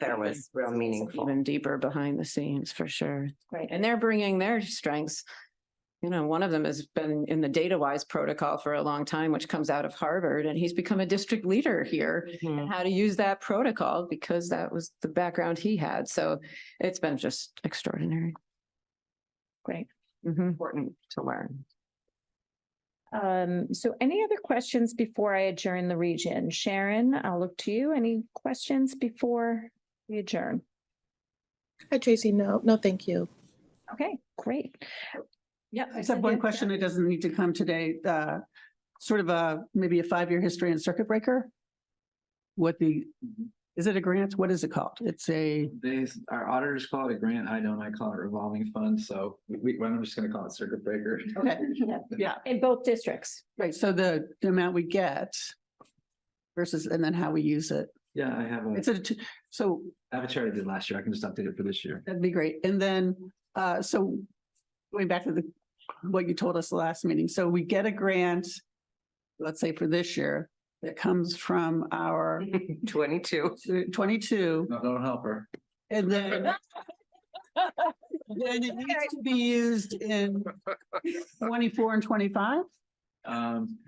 that was real meaningful. Even deeper behind the scenes for sure. Right. And they're bringing their strengths. You know, one of them has been in the data wise protocol for a long time, which comes out of Harvard, and he's become a district leader here. Mm-hmm. And how to use that protocol because that was the background he had. So it's been just extraordinary. Great. Mhm. Important to learn. Um, so any other questions before I adjourn the region? Sharon, I'll look to you. Any questions before we adjourn? Hi, Tracy. No, no, thank you. Okay, great. Yeah, I just have one question. It doesn't need to come today. Uh, sort of a, maybe a five-year history and circuit breaker. What the, is it a grant? What is it called? It's a, They, our auditors call it a grant. I don't, I call it revolving fund. So we, we- I'm just gonna call it circuit breaker. okay, yeah, In both districts. right. So the, the amount we get versus, and then how we use it. Yeah, I have It's a, a, t- so I have a chart I did last year. I can just update it for this year. That'd be great. And then, uh, so going back to the, what you told us the last meeting, so we get a grant, let's say for this year, that comes from our Twenty-two. Mm-hmm. twenty-two, No, don't help her. and then then it needs to be used in twenty-four and twenty-five? Um,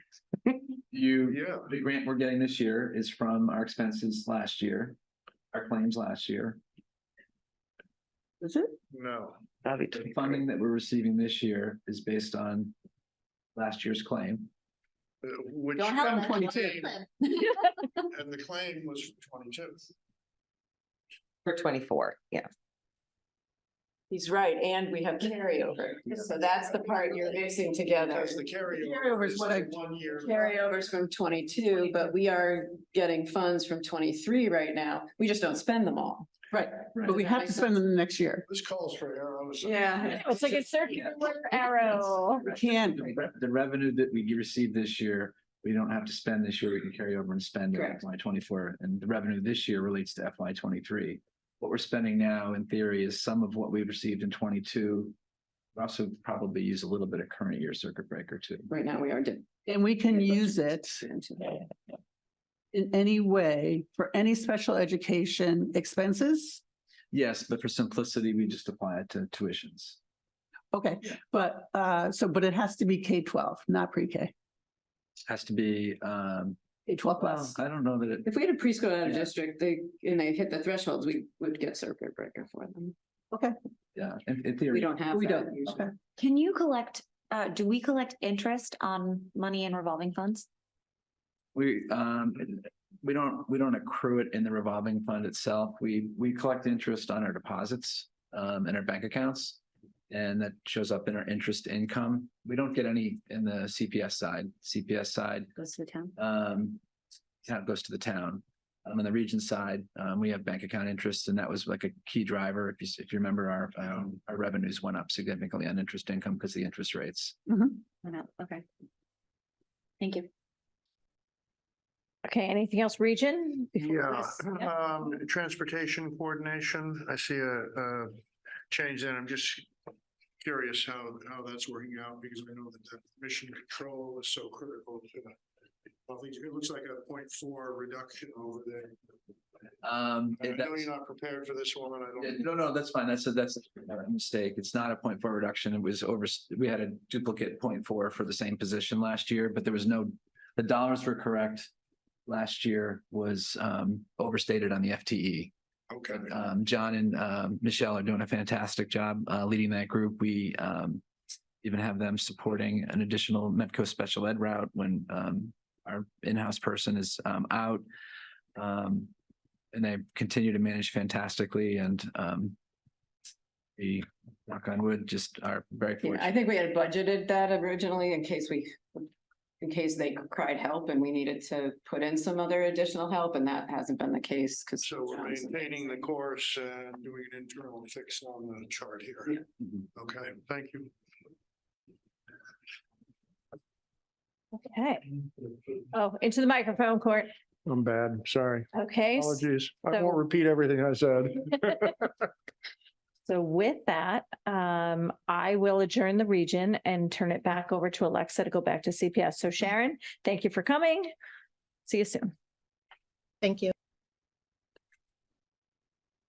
you, the grant we're getting this year is from our expenses last year, our claims last year. Is it? No. The funding that we're receiving this year is based on last year's claim. uh, Which. Don't have that. Twenty-two. And the claim was from twenty-two. For twenty-four, yeah. He's right. And we have carryover. So that's the part you're mixing together. Because the Carryover carryover is is what I- the one year. Carryovers from twenty-two, but we are getting funds from twenty-three right now. We just don't spend them all. Right, Right. but we have to spend them the next year. This calls for arrows. Yeah. It's like a circular arrow. We can't, The re- the revenue that we receive this year, we don't have to spend this year. We can carry over and spend in Correct. FY twenty-four. And the revenue this year relates to FY twenty-three. What we're spending now in theory is some of what we received in twenty-two. We Also probably use a little bit of current year circuit breaker too. Right now, we are. di- and we can use it in any way for any special education expenses. Yes, but for simplicity, we just apply it to tuitions. Okay, but, uh, so, but it has to be K twelve, not pre-K, Has to be, um, K twelve Oh. plus. I don't know that it, If we had a preschool out of Yeah. district, they, and they hit the thresholds, we would get circuit breaker for them. yeah, in, in We theory, don't have. We that don't, usually. okay. Can you collect, uh, do we collect interest on money in revolving funds? we, um, we don't, we don't accrue it in the revolving fund itself. We, we collect interest on our deposits, um, in our bank accounts. And that shows up in our interest income. We don't get any in the CPS side. CPS side, Goes to the town? um, kind of goes to the town. Um, on the region side, um, we have bank account interest and that was like a key driver. If you, s- if you remember, our, um, our revenues went up significantly on interest income because the interest rates. Mm-hmm. Or not? Okay. Thank you. Okay, anything else, region? Yeah, Yeah. um, transportation coordination, I see a, a change there. I'm just curious how, how that's working out because I know that the mission control is so critical to the. I think it looks like a point four reduction over there. Um, I know that's- you're not prepared for this one. I Yeah, don't. No, no, that's fine. That's a, that's a mistake. It's not a point four reduction. It was over, we had a duplicate point four for the same position last year, but there was no, the dollars were correct. Last year was um overstated on the E. FTE. Okay. Um, John and um Michelle are doing a fantastic job uh leading that group. We um even have them supporting an additional Metco special ed route when um our in-house person is um out. Um, and they continue to manage fantastically and um we knock on wood, just are very Yeah, I fortunate. think we had budgeted that originally in case we, in case they cried help and we needed to put in some other additional help and that hasn't been the case because. So we're maintaining the course and doing an internal fix on the chart here. Mhm. Okay, thank you. Okay. Oh, into the microphone, Court. I'm bad, sorry. Okay. Apologies. I so- won't repeat everything I said. So with that, um, I will adjourn the region and turn it back over to Alexa to go back to CPS. So Sharon, thank you for coming. See you soon. Thank you.